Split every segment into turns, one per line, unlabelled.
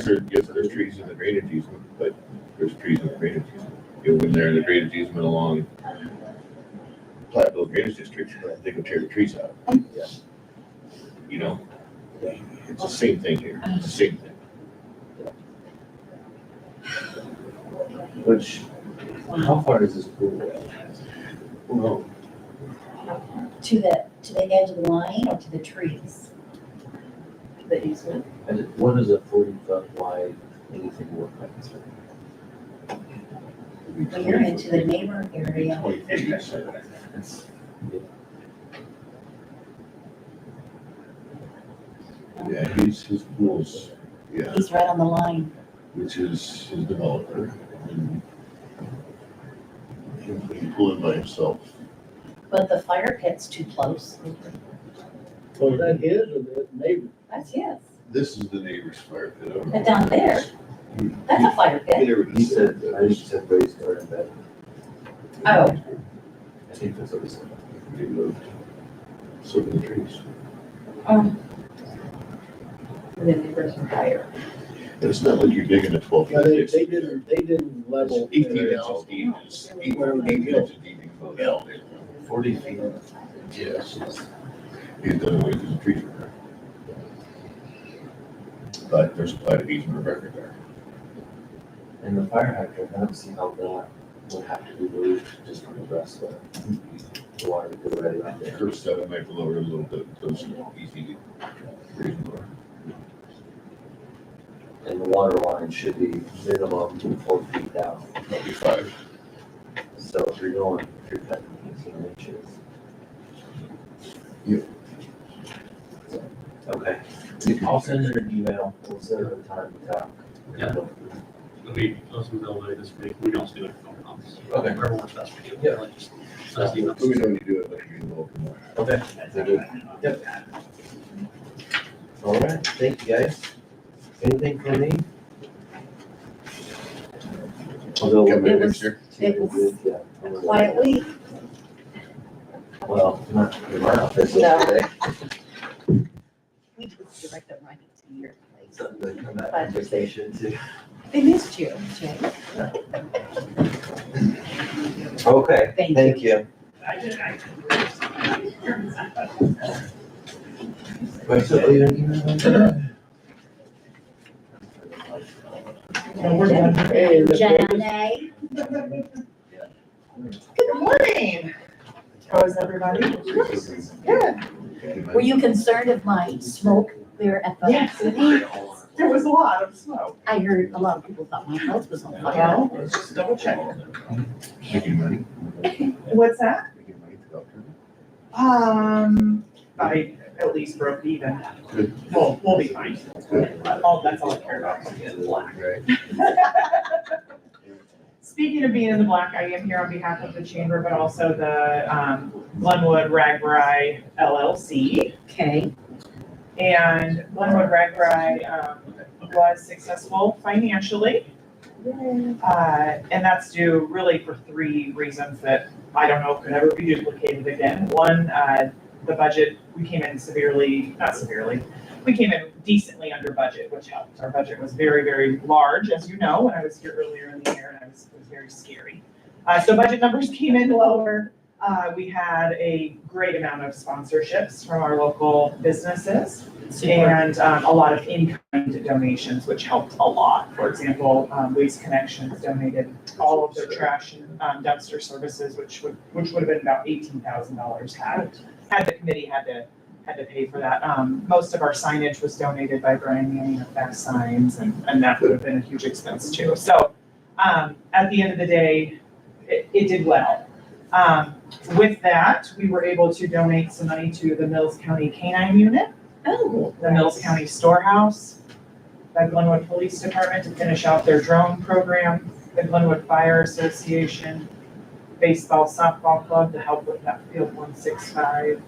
sure, yes, there's trees in the drainage easement, but there's trees in the drainage easement. You go in there and the drainage easement along Platteville Drainage District, they could tear the trees out.
Mm.
Yeah.
You know? It's the same thing here,
Oh.
it's the same thing.
Which, how far is this pool?
Well,
To the, to the edge of the line or to the trees?
the easement.
And it- what is a forty foot wide anything look like?
it'd be
When you're into the neighbor area,
20 feet, 20 feet.
It's-
Yeah, he's, his pool's, yeah,
he's right on the line.
which is his developer. and He can pull in by himself.
But the fire pit's too close.
So is that his or the neighbor?
That's his.
This is the neighbor's fire pit. I don't know.
But down there, that's a fire
He
pit.
never
He
just
said,
said
I
that.
just said raised garden bed.
Oh.
I think that's what he said.
He moved. So the trees.
And then the person higher.
And it's not like you're digging a twelve.
Yeah, they,
It's
they didn't, they didn't level.
E
Eighteen
their
inches
house.
deep. It's eight-
Where we
eight
go.
inches deep. Yeah.
Forty feet.
Yes. He's done away with the trees. were there. But there's a platted easement of record there.
And the fire hydrant, I don't see how that would have to be moved just from the rest of the water to go right around there.
Curb stub, I might lower it a little bit, those are easy. reasonable.
And the water line should be minimum four feet down.
Probably five.
So if you're going, if you're cutting eighteen inches.
Yeah.
Okay, I'll send her an email, we'll set up a time to talk.
Yeah. We, us and Bill, like, this week, we don't do it for comps.
Okay.
Whatever works best for you.
Yeah.
Like, just send
Let
us
me know
emails.
when you do it, like, you're a little more.
Okay. Yep. All right, thank you guys. Anything for me? Although.
Come in
It was-
next year.
it was Quiet week.
Well, not in my office
No.
today.
We just direct them right into your place.
Something to come back from vacation to.
They missed you, Jay.
Okay,
Thank you.
thank you. Wait, so you don't even-
Hey, the neighbors.
Janae. Good morning.
How is everybody? Good.
Were you concerned of my smoke there at the?
Yes. There was a lot of smoke.
I heard a lot of people thought my house was on fire.
Well, let's just double check.
Making money.
What's that?
Making money for doctor.
Um, I at least broke even.
Good.
We'll, we'll be fine.
Good.
All, that's all I care about. is being in the black.
Right.
Speaking of being in the black, I am here on behalf of the chamber, but also the, um, Glenwood Ragbri LLC.
Okay,
And Glenwood Ragbri um, was successful financially. Uh, And that's due really for three reasons that I don't know if could ever be duplicated again. One, uh, the budget, we came in severely, not severely, we came in decently under budget, which helped. Our budget was very, very large, as you know, when I was here earlier in the year, and I was, it was very scary. Uh, So budget numbers came in lower. Uh, We had a great amount of sponsorships from our local businesses.
super.
And um, a lot of in-kind donations, which helped a lot. For example, um, Waste Connections donated all of their trash and um, dumpster services, which would, which would have been about eighteen thousand dollars had, had the committee had to, had to pay for that. Um, Most of our signage was donated by Brian Manning of Beck Signs, and, and that would have been a huge expense too. So um, at the end of the day, it, it did well. Um, With that, we were able to donate some money to the Mills County Canine Unit
Oh,
the Mills County Storehouse, the Glenwood Police Department to finish out their drone program, the Glenwood Fire Association, baseball softball club to help with that field one six five.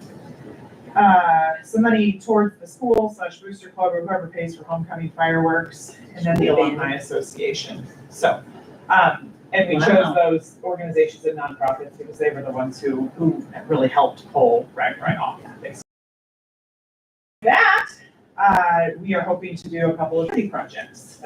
Uh, some money towards the school slash booster club or whoever pays for homecoming fireworks, and then the alumni association, so. Um, and we
Wow.
chose those organizations and nonprofits because they were the ones who, who really helped pull Rag Right off, basically that, uh, we are hoping to do a couple of city projects